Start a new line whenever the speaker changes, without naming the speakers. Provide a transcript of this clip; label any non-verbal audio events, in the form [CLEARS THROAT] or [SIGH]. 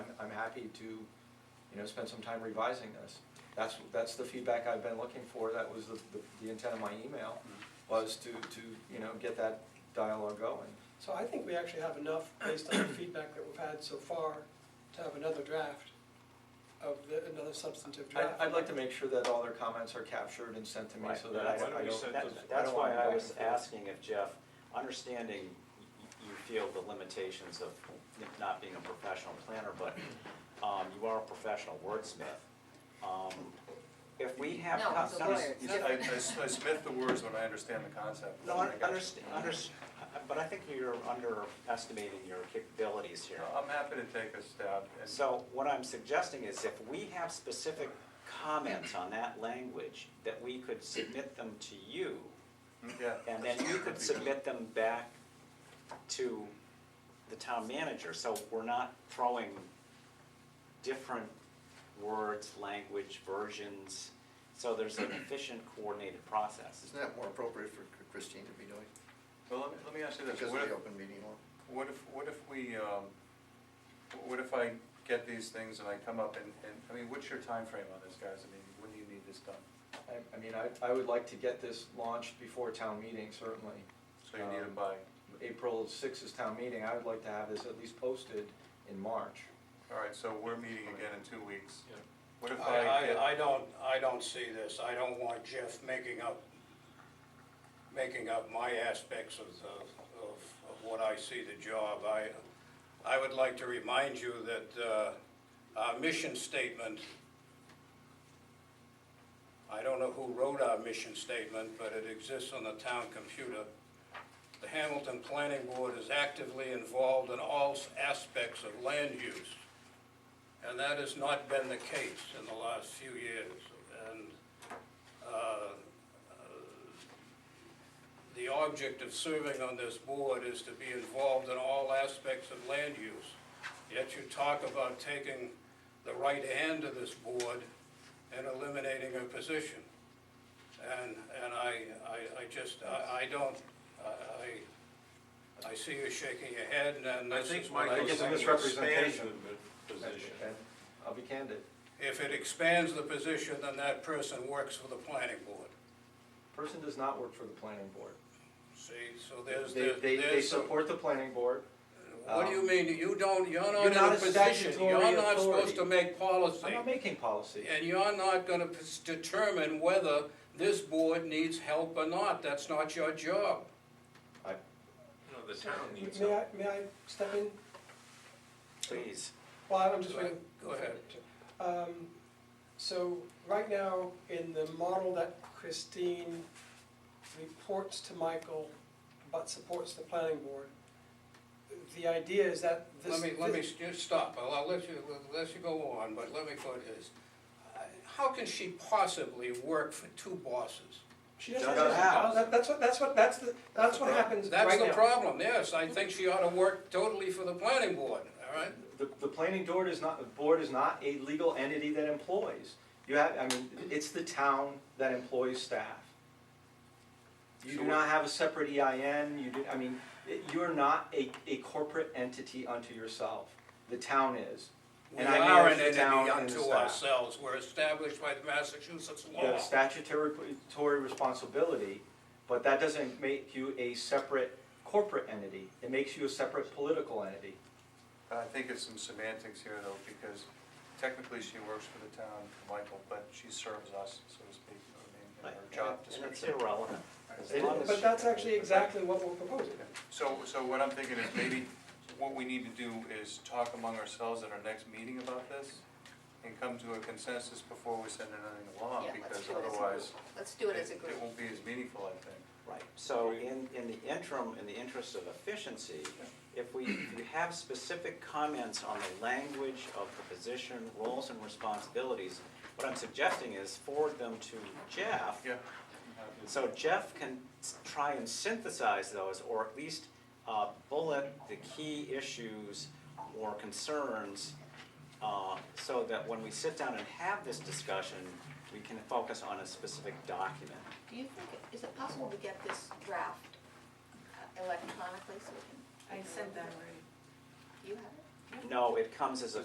happy to, you know, spend some time revising this. That's, that's the feedback I've been looking for, that was the, the- the intent of my email, was to, to, you know, get that dialogue going.
So I think we actually have enough, based on [CLEARS THROAT] the feedback that we've had so far, to have another draft of the, another substantive
I'd,
draft.
I'd like to make sure that all their comments are captured and sent to me,
Right.
so that I I
Why
don't.
don't we set
I
those-
don't
That's why
wanna go
I
back
was
and forth.
asking if Jeff, understanding y- you feel the limitations of not being a professional planner, but um, you are a professional wordsmith. Um, If we have.
No,
co-
he's a
no,
lawyer.
he's-
It's
I, I s- I submit the words when I understand the concept.
[LAUGHS] No,
I got you.
understand, but I think you're underestimating your capabilities here.
I'm happy to take a stab and.
So what I'm suggesting is if we have specific comments on that language, that we could submit them to you,
mm, Yeah.
and then you could submit them back to the town manager, so we're not throwing different words, language, versions, so there's an efficient coordinated process.
Isn't that more appropriate for Christine to be doing?
Well, let me, let me ask you this,
Because of
what
the
if,
open meeting law?
what if, what if we, um, what if I get these things and I come up and, and, I mean, what's your time frame on this, guys? I mean, when do you need this done?
I, I mean, I, I would like to get this launched before town meeting, certainly.
So you need
Um,
them by,
April sixth is town meeting, I would like to have this at least posted in March.
all right, so we're meeting again in two weeks.
Yeah.
What if
I,
I get?
I, I don't, I don't see this, I don't want Jeff making up, making up my aspects of, the- of, of what I see the job. I, I would like to remind you that, uh, our mission statement, I don't know who wrote our mission statement, but it exists on the town computer. The Hamilton Planning Board is actively involved in all aspects of land use. And that has not been the case in the last few years. And uh, uh, the object of serving on this board is to be involved in all aspects of land use. Yet you talk about taking the right hand of this board and eliminating a position. And, and I, I, I just, I, I don't, I, I I see you shaking your head and then
I
this
think
is what I.
Michael's
think it's a
think.
saying
misrepresentation.
expansion of the position.
And I'll be candid,
If it expands the position, then that person works for the planning board.
person does not work for the planning board.
See, so there's,
They,
there's.
they, they
there's some-
support the planning board,
What do you mean, you don't, you're
You're
not
not
in
a
a position,
statutory
you're not
authority.
supposed to make policy.
I'm not making policy.
And you're not gonna p- determine whether this board needs help or not, that's not your job.
I,
No, the town needs
May I,
help.
may I step in?
Please.
Well, I'm just waiting.
Go ahead.
Um, So right now, in the model that Christine reports to Michael, but supports the planning board, the idea is that this.
Let me, let me s- just stop, I'll, I'll let you, let you go on, but let me put this. I- How can she possibly work for two bosses?
She doesn't.
She doesn't have.
Oh, That- That's what, that's what, that's the, that's what happens right now.
That's the problem, yes, I think she ought to work totally for the planning board, all right?
the, the planning board is not, the board is not a legal entity that employs. You have, I mean, it's the town that employs staff. You do not have a separate EIN, you do, I mean, it- you're not a, a corporate entity unto yourself. The town is.
We
And I
are
manage
an
the
entity
town and the
unto
staff.
ourselves, we're established by the Massachusetts
You
law.
have statutory tory responsibility, but that doesn't make you a separate corporate entity. It makes you a separate political entity.
I think it's some semantics here though, because technically she works for the town, Michael, but she serves us, so to speak, you know what I mean, in her job
And it's
description.
irrelevant. As
It
long
is.
as-
But that's actually exactly what we're proposing.
So, so what I'm thinking is maybe what we need to do is talk among ourselves at our next meeting about this and come to a consensus before we send anything along,
Yeah, let's
because
do it as a group.
otherwise
Let's do it as a
it
group.
won't be as meaningful, I think.
Right, so in, in the interim, in the interest of efficiency, if we, if you have specific comments on the language of the position, roles and responsibilities, what I'm suggesting is forward them to Jeff.
Yeah.
So Jeff can s- try and synthesize those, or at least uh, bullet the key issues or concerns, uh, so that when we sit down and have this discussion, we can focus on a specific document.
Do you think, is it possible to get this draft uh, electronically so we can?
I sent that already.
You have it?
No, it comes as a